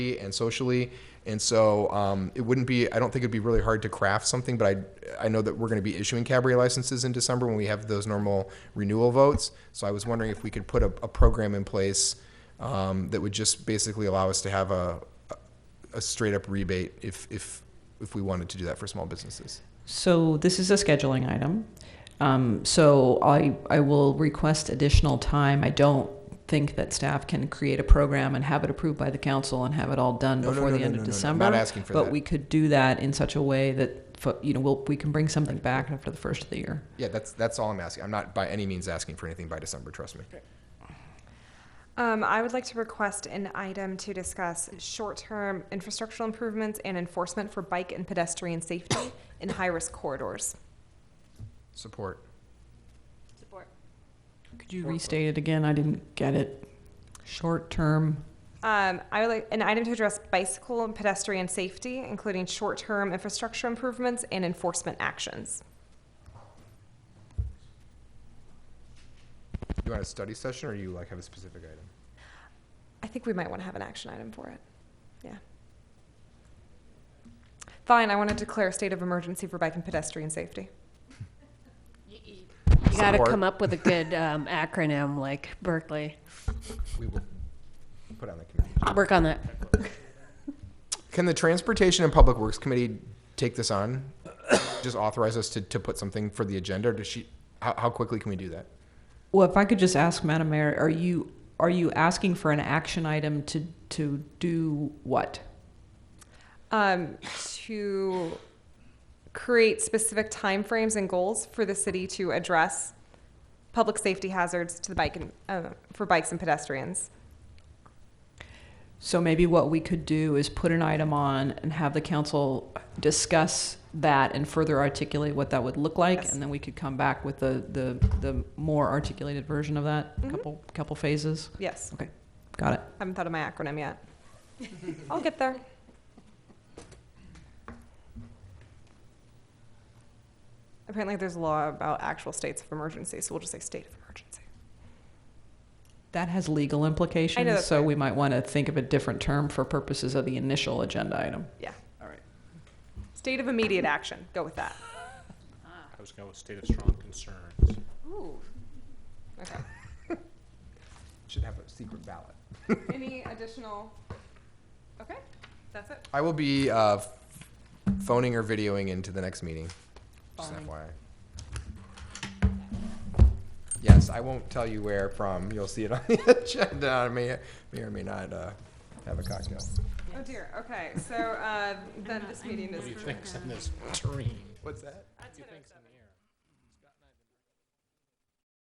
and socially. And so um, it wouldn't be, I don't think it'd be really hard to craft something, but I, I know that we're going to be issuing cabaret licenses in December when we have those normal renewal votes. So I was wondering if we could put a, a program in place um, that would just basically allow us to have a, a straight up rebate if, if, if we wanted to do that for small businesses. So this is a scheduling item. Um, So I, I will request additional time. I don't think that staff can create a program and have it approved by the council and have it all done No, no, before no, the no, end no, no, of no. December. Not asking for that. But we could do that in such a way that, fo- you know, we'll, we can bring something back after the first of the year. Yeah, that's, that's all I'm asking. I'm not by any means asking for anything by December, trust me. Um, I would like to request an item to discuss short-term infrastructural improvements and enforcement for bike and pedestrian safety in high-risk corridors. Support. Could you restate it again? I didn't get it. Short-term, Um, I would like an item to address bicycle and pedestrian safety, including short-term infrastructure improvements and enforcement actions. You want a study session or you like have a specific item? I think we might want to have an action item for it. Yeah. Fine, I want to declare a state of emergency for bike and pedestrian safety. You got to Support. come up with a good um, acronym like Berkeley. We will put on the committee. Work on that. Can the Transportation and Public Works Committee take this on? Just authorize us to, to put something for the agenda, or does she, how, how quickly can we do that? well, if I could just ask, Madam Mayor, are you, are you asking for an action item to, to do what? um, to create specific timeframes and goals for the city to address public safety hazards to the bike and, uh, for bikes and pedestrians. So maybe what we could do is put an item on and have the council discuss that and further articulate what that would look like, Yes. and then we could come back with the, the, the more articulated version of that, Mm-hmm. a couple, couple phases. Yes, Okay, got it. haven't thought of my acronym yet. I'll get there. Apparently, there's a law about actual states of emergency, so we'll just say state of emergency. That has legal implications, that's so right. we might want to think of a different term for purposes of the initial agenda item. Yeah. All right. State of immediate action. Go with that. I was going with state of strong concerns. Ooh. Okay. Should have a secret ballot. Any additional? Okay, that's it. I will be, uh, phoning or videoing into the next meeting, just FYI. Yes, I won't tell you where from, you'll see it on the agenda, I may, may or may not, uh, have a cocktail. Oh dear, okay, so, uh, then this meeting is. What do you think's in this dream? What's that? What do you think's in the air?